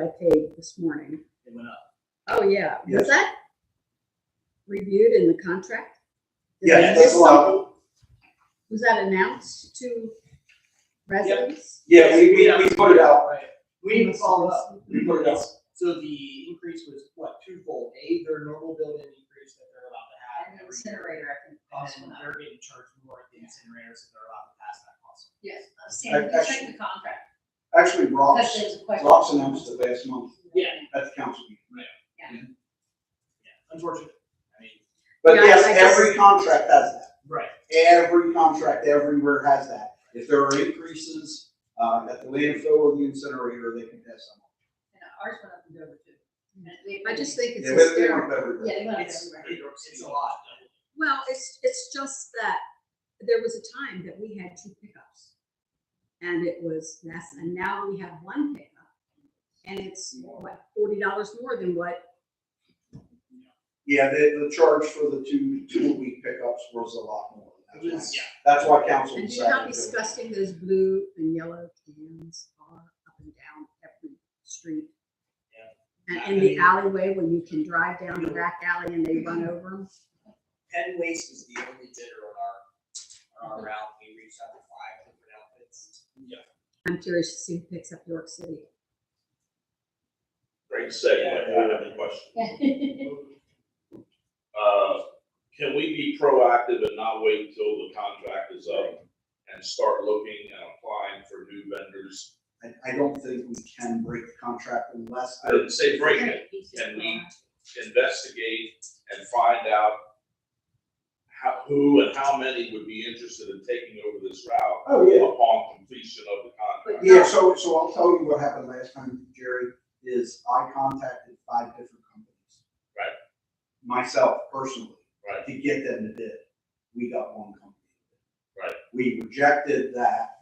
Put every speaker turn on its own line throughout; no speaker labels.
I paid this morning.
It went up.
Oh, yeah. Was
Yes.
that reviewed in the contract? Did
Yes,
they
that's
do
allowed.
something? Was that announced to residents?
Yeah, we, we, we put it out,
Right. We didn't follow up.
we put it out.
So the increase was what, twofold, A, their normal building increase that they're allowed to have every year. And
cost
then
went up.
they're getting charged more at the incinerator, so they're allowed to pass that cost.
Yes, I'm
I-
saying, Uh, you check
actually-
the contract,
Actually,
because
Ross,
there's a question.
Ross announced it last month
Yeah.
at the council meeting.
Yeah, unfortunately, I mean,
But
Yeah, I-
yes,
I just-
every contract has that.
right,
Every contract everywhere has that. If there are increases, uh, at the landfill or the incinerator, they can pass them.
And uh, Ours went up and over too. And they-
I just think it's
Yeah, but they
hysterical.
weren't everywhere.
Yeah, they went up
it's,
everywhere.
it's a lot.
Well, it's, it's just that there was a time that we had two pickups. And it was less, and now we have one pickup. And it's what, forty dollars more than what,
Yeah, the, the charge for the two, two a week pickups was a lot more. That's why-
Yeah.
That's why council
and
decided.
do you know how
to do it.
disgusting those blue and yellow cans are up and down every street? And in the alleyway, when you can drive down the back alley and they run over them?
Penn Waste was the only bidder on our, on our route, we reached out to five different outfits. Yeah.
I'm curious to see who picks up York City.
Great segue, I have a question. Uh, can we be proactive and not wait until the contract is up and start looking and applying for new vendors?
I, I don't think we can break the contract unless.
I didn't say break it, can we investigate and find out how, who and how many would be interested in taking over this route
Oh, yeah.
upon completion of the contract?
Yeah, so, so I'll tell you what happened last time, Jerry, is I contacted five different companies.
Right.
Myself personally.
Right.
To get them to bid. We got one company.
Right.
We rejected that.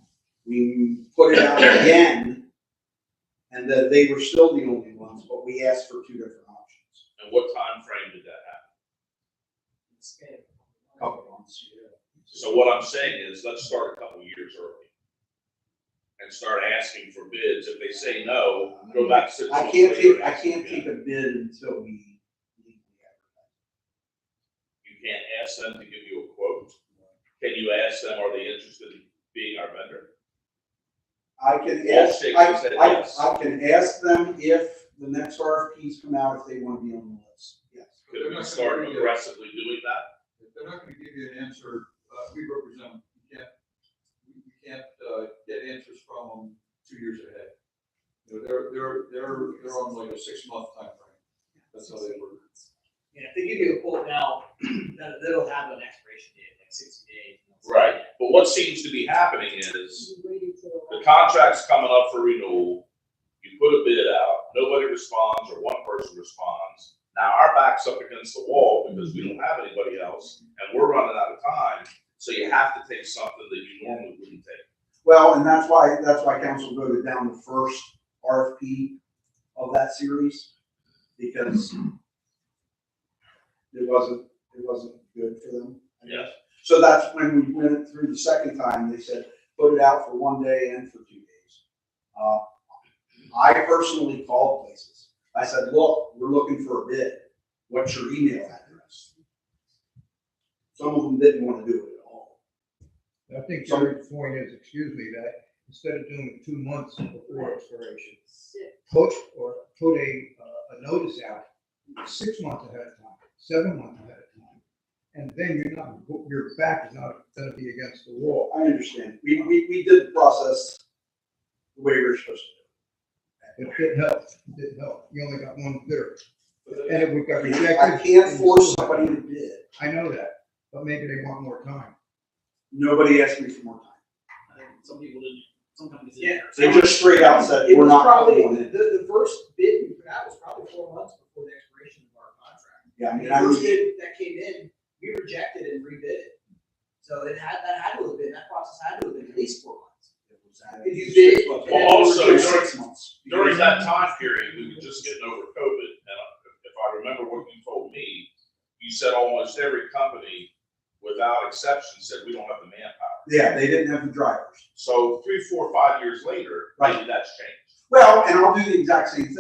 We put it out again. And that they were still the only ones, but we asked for two different options.
And what time frame did that happen?
Couple months, yeah.
So what I'm saying is, let's start a couple years early. And start asking for bids. If they say no, go back six
I
months
can't
later.
take,
and
I
ask
can't
again.
take a bid until we.
You can't ask them to give you a quote. Can you ask them, are they interested in being our vendor?
I can
All
ask,
six
I,
said
I,
yes.
I can ask them if the next RFPs come out, if they wanna be on the list, yes.
But they're
Could we
not
start
gonna give you-
aggressively doing that?
if They're not gonna give you an answer, uh, we represent, them. you can't, you you can't, uh, get answers from them two years ahead. You know, They're, they're, they're, they're on like a six-month timeframe, that's how they work.
Yeah, if they give you a quote now, that, that'll have an expiration date, like sixty days.
Right, but what seems to be happening is, the contract's coming up for renewal. You put a bid out, nobody responds, or one person responds. Now our back's up against the wall because we don't have anybody else, and we're running out of time. So you have to take something that you normally wouldn't take.
Well, and that's why, that's why council voted down the first RFP of that series, because it wasn't, it wasn't good for them. I guess.
Yes.
So that's when we went through the second time, they said, put it out for one day and for two days. Uh, I personally called places. I said, look, we're looking for a bid. What's your email address? Some of them didn't want to do it at all.
I think
So-
your point is, excuse me, that instead of doing it two months before expiration, put or put a, uh, a notice out six months ahead of time, seven months ahead of time. And then you're not, your back is not gonna be against the wall.
I understand. We, we, we did the process the way we were supposed
It didn't help, it didn't help. You only got one bidder.
But then-
And if we got
to. do it. I
rejected.
can't force somebody to bid.
I know that, but maybe they want more time.
Nobody asked me for more time.
Some people didn't, some companies
Yeah,
didn't.
they just straight out said,
It
we're
was
not
probably,
going
the,
it.
the first bid we put out was probably four months before the expiration of our contract.
Yeah, I
And
mean,
the
I
first
was,
bid that came in, we rejected and rebid it. So it had, that had to have been, that process had to have been at least four months. If you bid, and then
Well, also,
we were-
during-
Six months.
During that time period, we were just getting over COVID, and if- if I remember what you told me, you said almost every company, without exception, said we don't have the manpower.
Yeah, they didn't have the drivers.
So three, four, five years later, maybe that's changed.
Well, and I'll do the exact same thing.